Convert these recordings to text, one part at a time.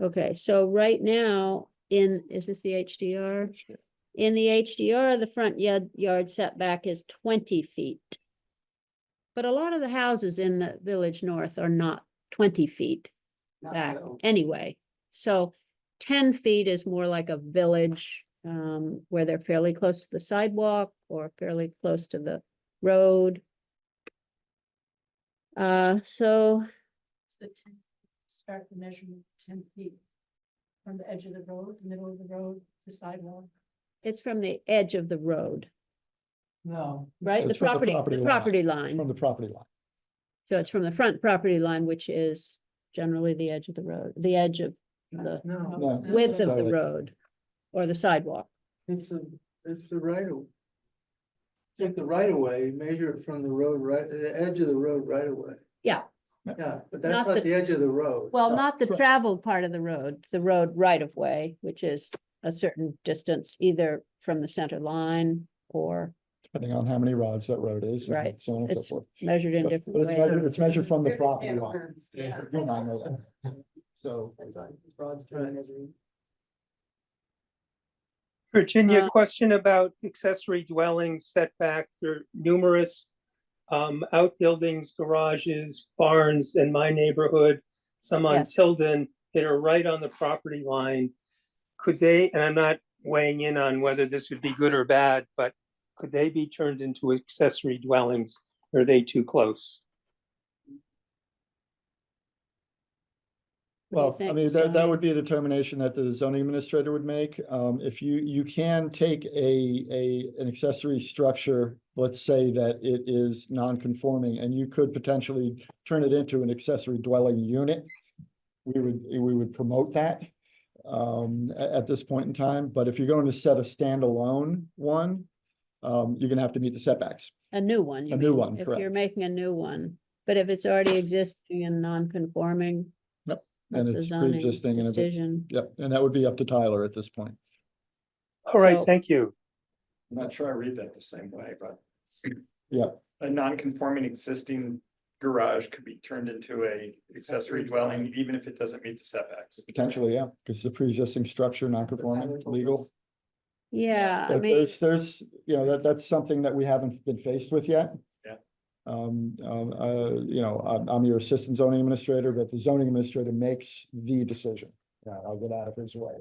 Okay, so right now, in, is this the HDR? In the HDR, the front yard, yard setback is twenty feet. But a lot of the houses in the Village North are not twenty feet Not back well. anyway. So ten feet is more like a village, um, where they're fairly close to the sidewalk or fairly close to the road. Uh, so, It's the ten, start the measurement ten feet from the edge of the road, middle of the road, the sidewalk. it's from the edge of the road, No. right? The It's from property, the property the line. property It's From line. the property line. So it's from the front property line, which is generally the edge of the road, the edge of the No. it's not. width of the Sidewalk. road or the sidewalk. It's a, it's the right of. Take the right of way, measure it from the road, right, the edge of the road right away. Yeah. Yeah. Yeah, Not but that's the- not the edge of the road. Well, Yeah. not the Right. traveled part of the road, the road right of way, which is a certain distance either from the center line or Depending on how many rods that road is. and Right. So on and so It's forth. measured in But different but it's measured, ways. it's measured from the There's a property can of line. worms, yeah. You and I know that. So That's on Broad Street Right. measuring. Virginia, Uh, question about accessory dwellings setback. There are numerous um, outbuildings, garages, barns in my neighborhood, some on Yes. Tilden that are right on the property line. Could they, and I'm not weighing in on whether this would be good or bad, but could they be turned into accessory dwellings? or Are they too close? What do you Well, I think, mean, that, that Sonia? would be a determination that the zoning administrator would make. Um, if you, you can take a, a, an accessory structure, let's say that it is non-conforming and you could potentially turn it into an accessory dwelling unit. We would, we would promote that, um, a- at, this point in time. But if you're going to set a standalone one, um, you're gonna have to meet the setbacks. A new one. you A new mean, one, If correct. you're making a new one, but if it's already existing and non-conforming. Yep, and That's a it's zoning pre-existing and if it's- decision. Yep, and that would be up to Tyler at this point. All right, So- thank you. I'm not sure I read that the same way, but. Yeah. A non-conforming existing garage could be turned into a accessory dwelling, even if it doesn't meet the setbacks. Potentially, yeah, because it's a pre-existing structure, non-conforming, legal. Yeah, I But mean, There's, there's, you know, that, that's something that we haven't been faced with yet. Yeah. Um, um, uh, you know, I'm, I'm your assistant zoning administrator, but the zoning administrator makes the decision. Yeah, I'll get out of his way.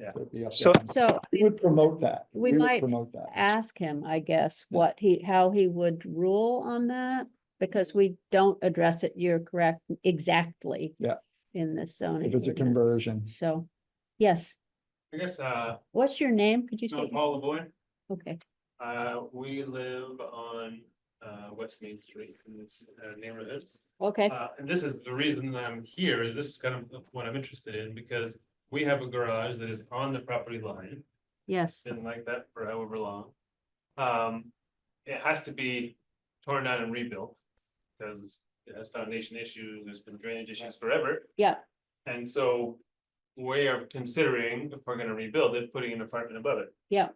Yeah. So it'd be up to So- him. so I We mean, would promote that. We would might Promote that. ask him, I guess, what he, how he would rule on that, because we don't address it, you're correct, exactly. Yeah. In this zoning. If it's a ordinance. conversion. So, yes, I guess, uh, what's your name? Could you no, say? Paul LaVoy, Okay, uh, we live on, uh, West Main Street in this uh, neighborhood. okay, Uh, and this is the reason that I'm here, is this is kind of what I'm interested in, because we have a garage that is on the property line. yes, It's been like that for however long. Um, it has to be torn down and rebuilt. Because it has foundation issues, there's been drainage issues forever. yeah, And so we are considering, if we're gonna rebuild it, putting an apartment above it. Yeah.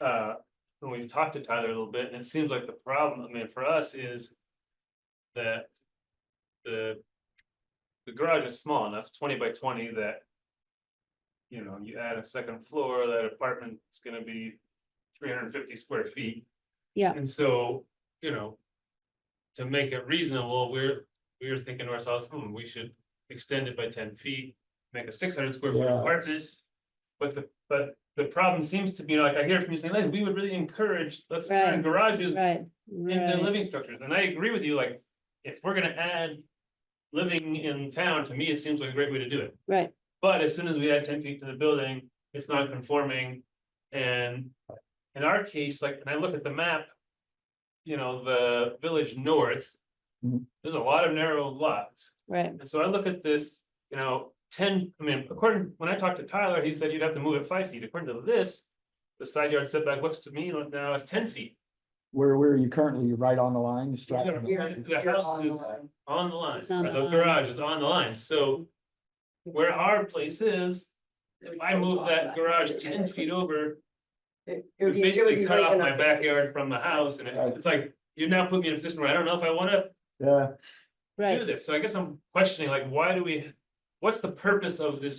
Uh, and we've talked to Tyler a little bit, and it seems like the problem, I mean, for us is that the the garage is small enough, twenty by twenty, that you know, you add a second floor, that apartment's gonna be three hundred and fifty square feet. Yeah. And so, you know, to make it reasonable, we're, we were thinking to ourselves, hmm, we should extend it by ten feet, make a six hundred square foot Yeah. apartment. But the, but the problem seems to be, like, I hear from you saying, like, we would really encourage, let's turn Right, garages right. into right. living structures, and I agree with you, like, if we're gonna add. Living in town, to me, it seems like a great way to do it, Right, but as soon as we add ten feet to the building, it's not conforming. And in our case, like, and I look at the map. You know, the village north. Mhm. There's a lot of narrow lots. right, And so I look at this, you know, ten, I mean, according, when I talked to Tyler, he said you'd have to move it five feet. According to this. The side yard setback looks to me like now it's ten feet Where, where are you currently? You're right on the line? Just Yeah, right on the you're- line? The you're house on the is- line. on the line, It's on or the the line. garage is on the line, so. Where our place is, if I move that garage ten feet over, It it you would be- it would basically be cut right off in my our faces. backyard from the house and it- Right. it's like. You now put me in a position where I don't know if I wanna Yeah. right. do this, so I guess I'm questioning like, why do we? What's the purpose of this